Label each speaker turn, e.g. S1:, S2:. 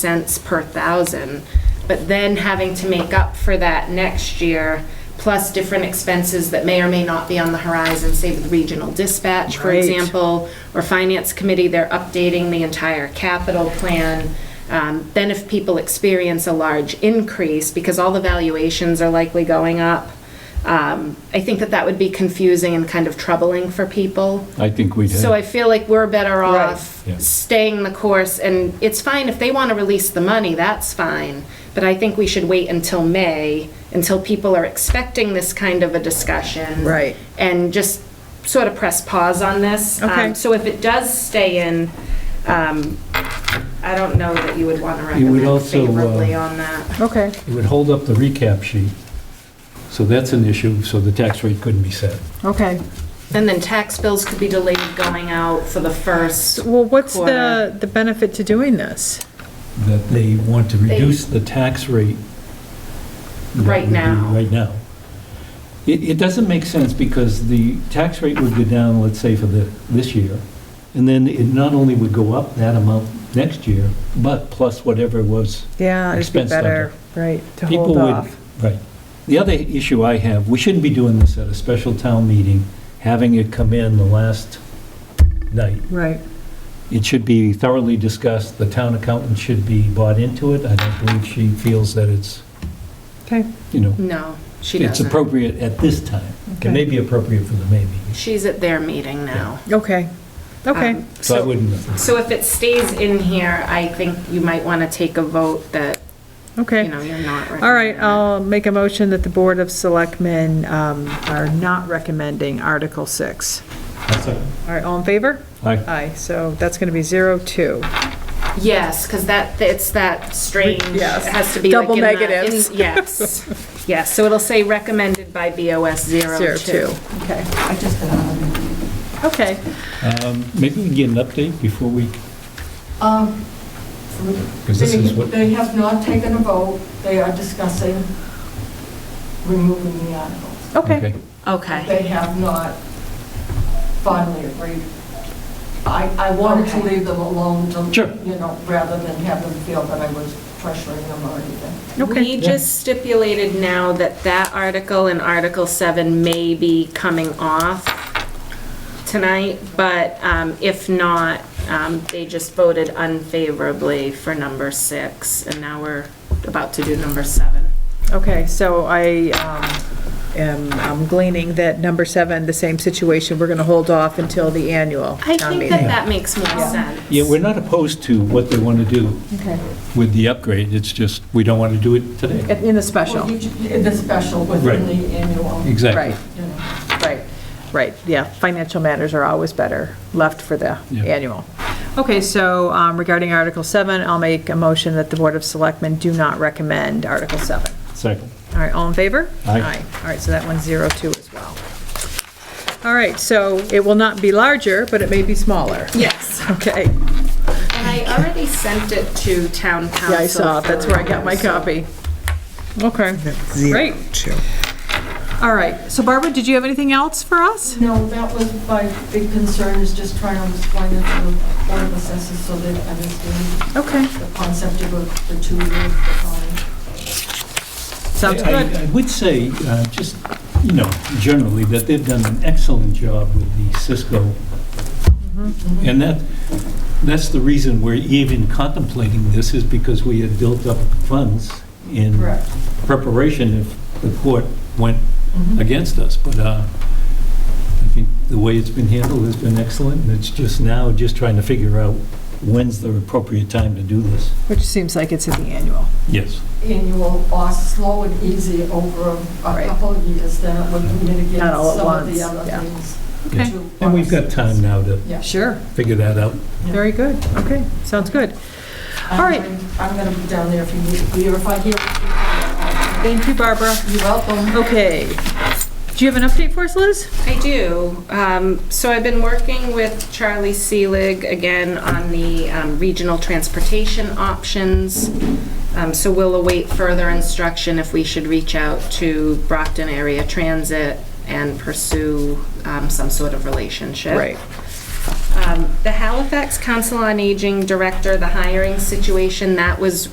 S1: cents per thousand, but then having to make up for that next year, plus different expenses that may or may not be on the horizon, say with regional dispatch, for
S2: Right.
S1: example, or finance committee, they're updating the entire capital plan. Um, Then if people experience a large increase, because all the valuations are likely going up, um, I think that that would be confusing and kind of troubling for people.
S3: I think we'd
S1: So I
S3: have,
S1: feel like we're better
S2: Right.
S1: off
S3: Yeah.
S1: staying the course, and it's fine if they want to release the money, that's fine. But I think we should wait until May, until people are expecting this kind of a discussion.
S2: Right.
S1: And just sort of press pause on this. Um,
S2: Okay.
S1: So if it does stay in, um, I don't know that you would want to
S3: would
S1: recommend
S3: also, uh,
S1: favorably on that.
S2: Okay,
S3: it would hold up the recap sheet. So that's an issue, so the tax rate couldn't be set.
S2: okay.
S1: And then tax bills could be delayed going out for the first.
S2: Well, what's
S1: Quarter.
S2: the, the benefit to doing this?
S3: That they want to reduce the tax rate. that
S1: Right
S3: we do
S1: now.
S3: Right now. It, it doesn't make sense because the tax rate would go down, let's say, for the, this year. And then it not only would go up that amount next year, but plus whatever was
S2: Yeah, it'd be
S3: Expense
S2: better, right, to
S3: People
S2: hold
S3: would-
S2: off.
S3: Right. The other issue I have, we shouldn't be doing this at a special town meeting, having it come in the last night.
S2: Right,
S3: It should be thoroughly discussed, the town accountant should be bought into it. I don't believe she feels that it's,
S2: okay,
S3: you know,
S1: No, she
S3: it's
S1: doesn't.
S3: appropriate at this time. It may
S2: okay,
S3: be appropriate for the May meeting,
S1: She's at their meeting now.
S2: okay, okay.
S1: Um,
S3: so I wouldn't.
S1: So if it stays in here, I think you might want to take a vote that, you
S2: okay.
S1: know, you're not recommending.
S2: All right,
S1: it.
S2: I'll make a motion that the Board of Selectmen um, are not recommending Article 6.
S3: That's all.
S2: All right, all in favor?
S3: Aye.
S2: Aye, so that's going to be 0-2.
S1: Yes, because that, it's that strange, it
S2: Yes.
S1: has to be like
S2: Double
S1: in the- in-
S2: negatives.
S1: Yes, yes, so it'll say recommended by BOS 02.
S2: Okay. I just
S4: uh,
S2: got Okay,
S3: Um, Maybe we can get an update before we,
S4: Um,
S3: because this is
S4: They
S3: what,
S4: they have not taken a vote. They are discussing removing the articles.
S2: okay,
S3: okay.
S1: Okay.
S4: They have not finally agreed. I, I wanted to
S1: Okay.
S4: leave them alone to,
S3: Sure.
S4: you know, rather than have them feel that I was pressuring them or anything.
S2: okay.
S1: We just stipulated now that that article and Article 7 may be coming off tonight, but um, if not, um, they just voted unfavorably for number 6, and now we're about to do number 7.
S2: Okay, so I um, am I'm gleaning that number seven, the same situation, we're going to hold off until the annual
S1: I
S2: town
S1: think that
S2: meeting.
S1: that makes more sense.
S3: Yeah, we're not opposed to what they want to do
S2: Okay.
S3: with the upgrade, it's just, we don't want to do it today.
S2: In the special,
S4: Well, you- you- The special within
S3: Right.
S4: the annual, you
S3: Exactly.
S2: right,
S4: know.
S2: right, right, yeah, financial matters are always better left for the
S3: Yeah.
S2: annual. Okay, so um, regarding Article seven, I'll make a motion that the Board of Selectmen do not recommend Article seven.
S3: Second.
S2: All right, all in favor?
S3: Aye.
S2: All right, so that one's zero two as well. All right, so it will not be larger, but it may be smaller.
S1: Yes.
S2: Okay.
S1: And I already sent it to town council.
S2: Yeah, I saw, it. that's where I got my copy. Okay, great. All right, so Barbara, did you have anything else for us?
S4: No, that was my big concern, is just trying to explain it to the Board of Assessors so they understand
S2: Okay,
S4: the concept of the two years decline.
S2: sounds
S3: I- I-
S2: good.
S3: I would say, uh, just, you know, generally, that they've done an excellent job with the Cisco.
S2: Mm-hmm.
S3: And that, that's the reason we're even contemplating this, is because we had built up funds in
S4: Correct.
S3: preparation if the court went
S2: Mm-hmm.
S3: against us. But uh, I think the way it's been handled has been excellent, and it's just now, just trying to figure out when's the appropriate time to do this.
S2: Which seems like it's at the annual.
S3: Yes.
S4: annual or slow and easy over a
S2: Right.
S4: couple of years, then it would mitigate
S2: Not all at
S4: some of the
S2: once,
S4: other
S2: yeah.
S4: things.
S3: Okay.
S4: to
S3: And we've got time now to
S4: Yeah.
S2: Sure,
S3: figure that out.
S2: very good. Okay, sounds good.
S4: I'm
S2: All right.
S4: going- I'm going to be down there if you need me, or if I hear,
S2: Thank you, Barbara.
S4: you're welcome.
S2: Okay. Do you have an update for us, Liz?
S1: I do. Um, So I've been working with Charlie Seelig again on the um, regional transportation options. Um, So we'll await further instruction if we should reach out to Brockton Area Transit and pursue um, some sort of relationship. um, the Halifax Council on Aging Director, the hiring situation, that was